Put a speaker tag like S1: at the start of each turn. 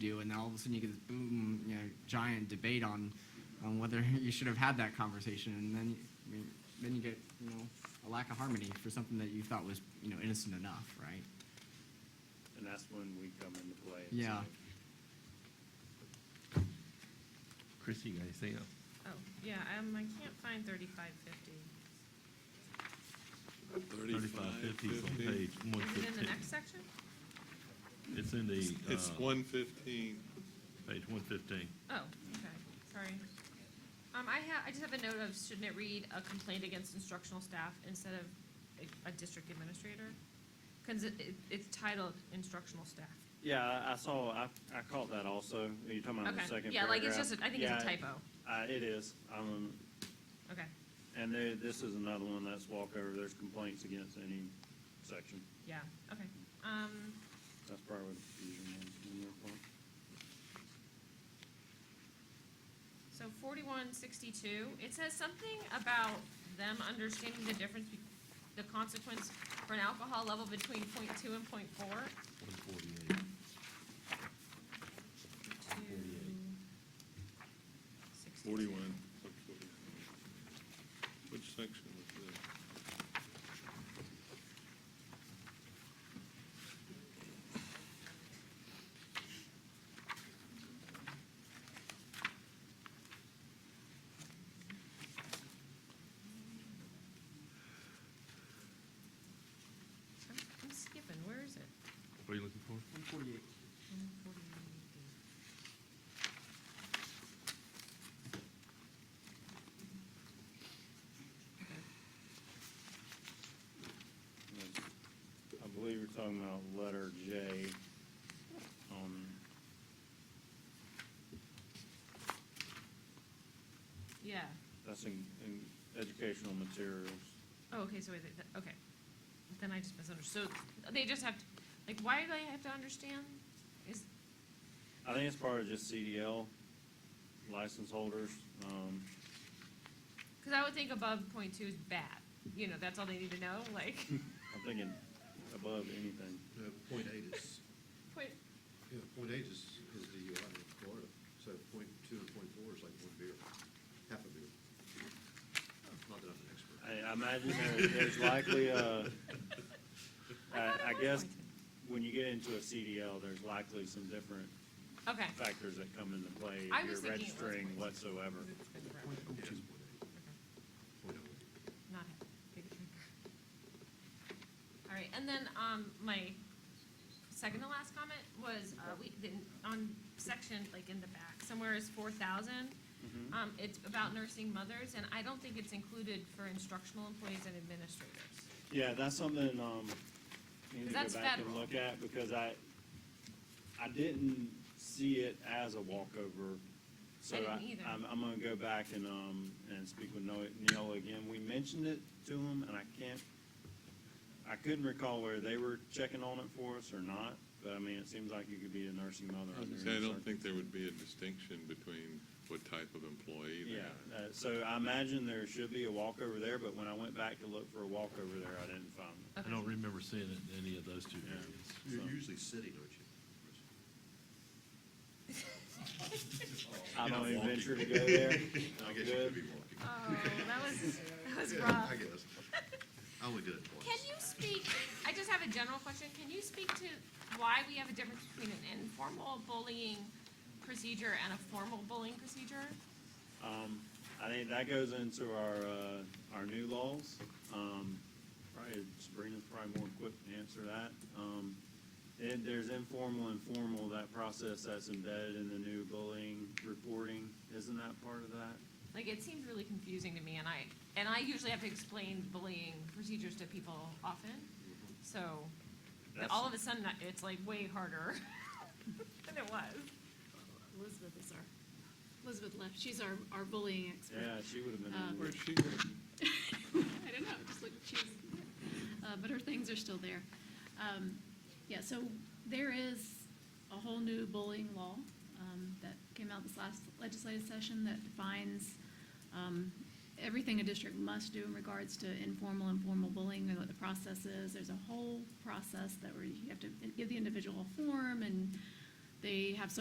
S1: do, and then all of a sudden you get this boom, you know, giant debate on, on whether you should have had that conversation, and then, I mean, then you get, you know, a lack of harmony for something that you thought was, you know, innocent enough, right?
S2: And that's when we come into play. and
S1: Yeah.
S2: say,
S3: Chris, you got anything else?
S4: Oh, yeah, um, I can't find thirty-five fifty.
S3: Thirty-five fifty is on page one
S4: Is it in the
S3: fifteen.
S4: next section?
S3: It's in the,
S5: It's
S3: uh,
S5: one fifteen.
S3: page one fifteen.
S4: Oh, okay, sorry. Um, I have, I just have a note of, shouldn't it read a complaint against instructional staff instead of a, a district administrator? Cause it, it, it's titled instructional staff.
S2: Yeah, I- I saw, I, I caught that also. You're talking about the
S4: Okay,
S2: second paragraph?
S4: yeah, like it's just, a- I think it's a
S2: Yeah,
S4: typo.
S2: Uh, it is. Um,
S4: Okay,
S2: and there, this is another one that's walkover. There's complaints against any section.
S4: yeah, okay. Um,
S2: That's probably what the confusion was in your point.
S4: So forty-one sixty-two, it says something about them understanding the difference, be- the consequence for an alcohol level between point two and point four.
S3: One forty-eight.
S5: Forty-one. Which section was this?
S4: I'm I'm skipping, where is it?
S3: What are you looking for?
S1: One forty-eight.
S4: 148.
S2: I believe you're talking about letter J on,
S4: Yeah,
S2: that's in, in educational materials.
S4: oh, okay, so wait, th- th- okay, then I just misunderstood, so they just have, to like, why do they have to understand? Is,
S2: I think it's part of just CDL license holders. Um,
S4: cause I would think above point two is bad, you know, that's all they need to know, like,
S2: I'm thinking above anything.
S6: No, Uh, point eight is,
S4: point,
S6: yeah, point eight is, is DUI in Florida, so point two and point four is like one beer, half a beer. Not that I'm an expert.
S2: I, I imagine there- there's likely a, I, I guess, when you get into a CDL, there's likely some different
S4: okay.
S2: factors that come into play.
S4: I
S2: if
S4: was
S2: You're
S4: thinking it was
S2: registering
S4: points.
S2: whatsoever.
S4: It's been forever.
S6: Point oh two is point eight, point oh.
S4: Not it. Big drink. All right, and then, um, my second to last comment was, uh, we, didn't- on section, like in the back, somewhere is four thousand.
S6: Mm-hmm.
S4: Um, it's about nursing mothers, and I don't think it's included for instructional employees and administrators.
S2: Yeah, that's something, um, I need to
S4: That's
S2: go back and
S4: federal.
S2: look at, because I, I didn't see it as a walkover. So
S4: I didn't
S2: I,
S4: either.
S2: I'm, I'm gonna go back and, um, and speak with Noe- Neola again. We mentioned it to him, and I can't, I couldn't recall whether they were checking on it for us or not, but I mean, it seems like you could be a nursing mother under
S5: See, I
S2: any
S5: don't
S2: circum-
S5: think there would be a distinction between what type of employee they
S2: Yeah,
S5: are.
S2: uh, so I imagine there should be a walkover there, but when I went back to look for a walkover there, I didn't find it.
S3: I
S4: Okay.
S3: don't remember seeing it in any of those two
S2: Yeah.
S3: areas.
S6: You're
S2: So-
S6: usually city, don't you? Chris?
S2: I
S5: You're
S2: don't
S5: not
S2: even
S5: walking.
S2: venture to go there.
S6: I
S2: I'm
S6: guess you
S2: good.
S6: could be walking.
S4: Oh, that was, that was
S6: Yeah,
S4: rough.
S6: I guess. I only did it once.
S4: Can you speak, I just have a general question, can you speak to why we have a difference between an informal bullying procedure and a formal bullying procedure?
S2: Um, I think that goes into our, uh, our new laws. Um, probably Sabrina's probably more equipped to answer that. Um, and there's informal and formal, that process that's embedded in the new bullying reporting. Isn't that part of that?
S4: Like, it seems really confusing to me, and I, and I usually have to explain bullying procedures to people often, so
S2: That's-
S4: all of a sudden, I- it's like way harder than it was.
S7: Elizabeth is our, Elizabeth left, she's our, our bullying expert.
S2: Yeah, she would have been. in
S7: Um,
S2: there.
S5: Where's she going?
S7: I don't know, just look, she's, uh, but her things are still there. Um, yeah, so there is a whole new bullying law, um, that came out this last legislative session that defines, um, everything a district must do in regards to informal and formal bullying and what the process is. There's a whole process that where you have to give the individual a form and they have so